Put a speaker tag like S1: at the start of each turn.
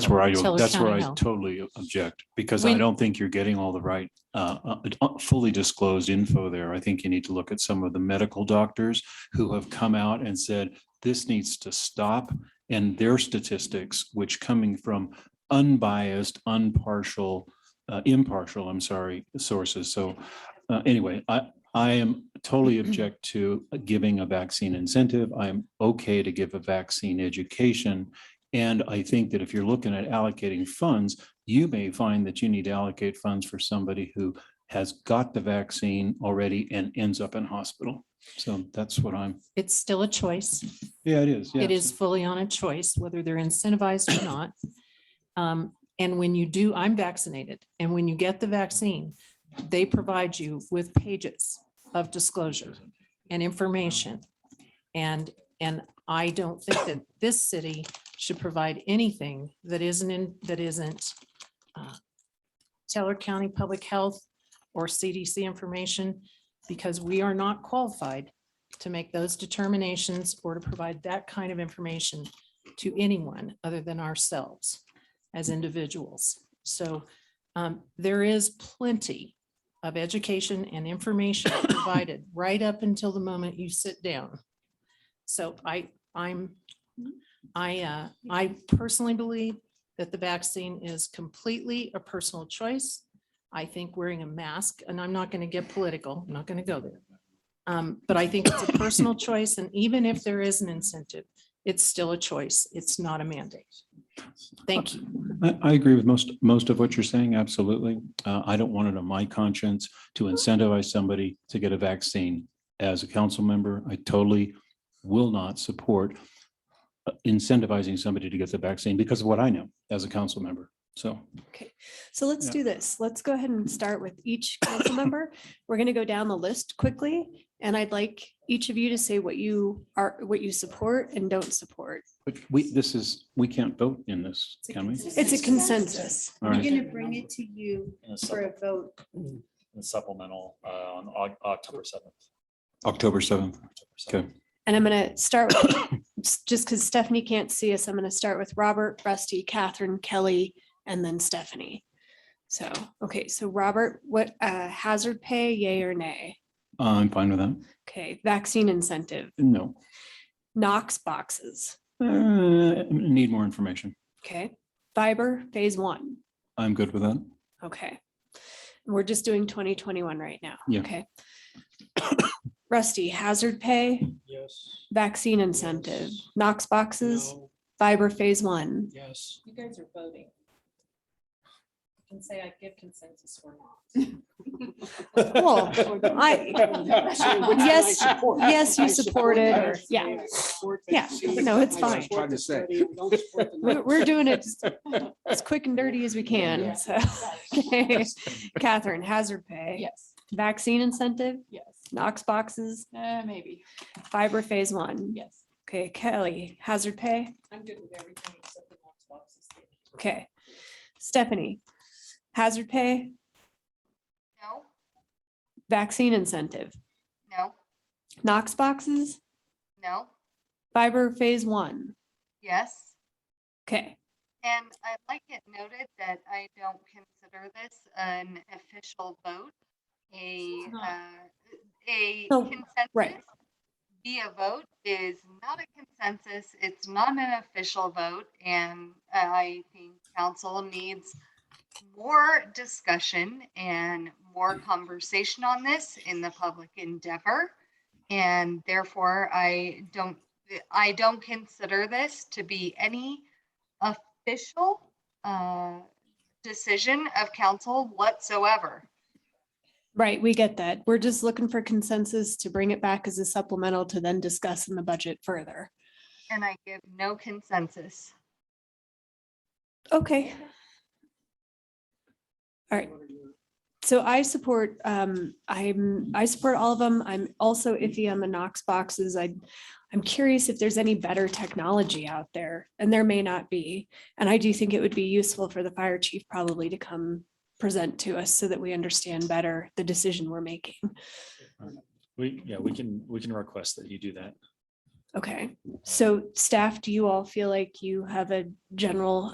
S1: where I,
S2: Taylor
S1: that's where
S2: County
S1: I
S2: Health.
S1: totally object, because I
S2: When-
S1: don't think you're getting all the right, uh, uh, uh, fully disclosed info there. I think you need to look at some of the medical doctors who have come out and said, this needs to stop. And their statistics, which coming from unbiased, unpartial, uh, impartial, I'm sorry, sources. So uh, anyway, I, I am totally object to giving a vaccine incentive. I'm okay to give a vaccine education. And I think that if you're looking at allocating funds, you may find that you need to allocate funds for somebody who has got the vaccine already and ends up in hospital. So that's what I'm,
S2: It's still a choice.
S1: yeah, it is.
S2: It is fully on a choice, whether they're incentivized or not. Um, And when you do, I'm vaccinated, and when you get the vaccine, they provide you with pages of disclosure and information. And, and I don't think that this city should provide anything that isn't in, that isn't uh, Teller County Public Health or CDC information, because we are not qualified to make those determinations or to provide that kind of information to anyone other than ourselves as individuals. So um, there is plenty of education and information provided right up until the moment you sit down. So I, I'm, I, uh, I personally believe that the vaccine is completely a personal choice. I think wearing a mask, and I'm not going to get political, I'm not going to go there. Um, but I think it's a personal choice, and even if there is an incentive, it's still a choice. It's not a mandate. Thank you.
S1: I, I agree with most, most of what you're saying, absolutely. Uh, I don't want it on my conscience to incentivize somebody to get a vaccine. As a council member, I totally will not support uh, incentivizing somebody to get the vaccine because of what I know as a council member. So,
S3: So let's
S1: Yeah.
S3: do this. Let's go ahead and start with each council member. We're going to go down the list quickly. And I'd like each of you to say what you are, what you support and don't support.
S1: but we, this is, we can't vote in this, can we?
S3: It's a consensus.
S1: All
S4: We're
S1: right.
S4: gonna bring it to you
S5: in a
S4: for
S5: sup-
S4: a vote.
S5: in a supplemental uh, on Oc- October seventh.
S1: October 7th. Okay.
S3: And I'm going to start, with- just because Stephanie can't see us, I'm going to start with Robert, Rusty, Catherine, Kelly, and then Stephanie. So, okay, so Robert, what uh, hazard pay, yay or nay?
S1: I'm fine with that.
S3: Okay, vaccine incentive,
S1: No,
S3: Knox boxes,
S1: Uh, need more information.
S3: okay? Fiber, phase one.
S1: I'm good with that.
S3: Okay. We're just doing twenty twenty-one right now.
S1: Yeah.
S3: Okay. Rusty, hazard pay,
S5: Yes.
S3: vaccine incentive, Knox boxes, fiber phase one.
S5: Yes.
S2: You guys are voting. You can say I give consensus or not.
S3: Cool. I, yes, yes, you support it, or, yeah, yeah, no, it's fine.
S6: Trying to say.
S3: We're, we're doing it just as quick and dirty as we can, so. Okay. Catherine, hazard pay,
S7: Yes,
S3: vaccine incentive,
S7: yes,
S3: Knox boxes,
S7: uh, maybe,
S3: fiber phase one.
S7: yes.
S3: Okay, Kelly, hazard pay.
S7: I'm good with everything except the Knox boxes.
S3: Okay. Stephanie, hazard pay,
S8: No,
S3: vaccine incentive,
S8: no,
S3: Knox boxes,
S8: no,
S3: fiber phase one.
S8: yes.
S3: Okay,
S8: And I'd like it noted that I don't consider this an official vote, a,
S2: not.
S8: uh, a
S3: No, right.
S8: consensus. Via vote is not a consensus, it's not an official vote, and I think council needs more discussion and more conversation on this in the public endeavor. And therefore, I don't, I don't consider this to be any official uh, decision of council whatsoever.
S3: right, we get that. We're just looking for consensus to bring it back as a supplemental to then discuss in the budget further.
S8: And I give no consensus.
S3: Okay. All right. So I support, um, I'm, I support all of them. I'm also iffy on the Knox boxes. I, I'm curious if there's any better technology out there and there may not be. And I do think it would be useful for the fire chief probably to come present to us so that we understand better the decision we're making.
S5: We, yeah, we can, we can request that you do that.
S3: Okay, so staff, do you all feel like you have a general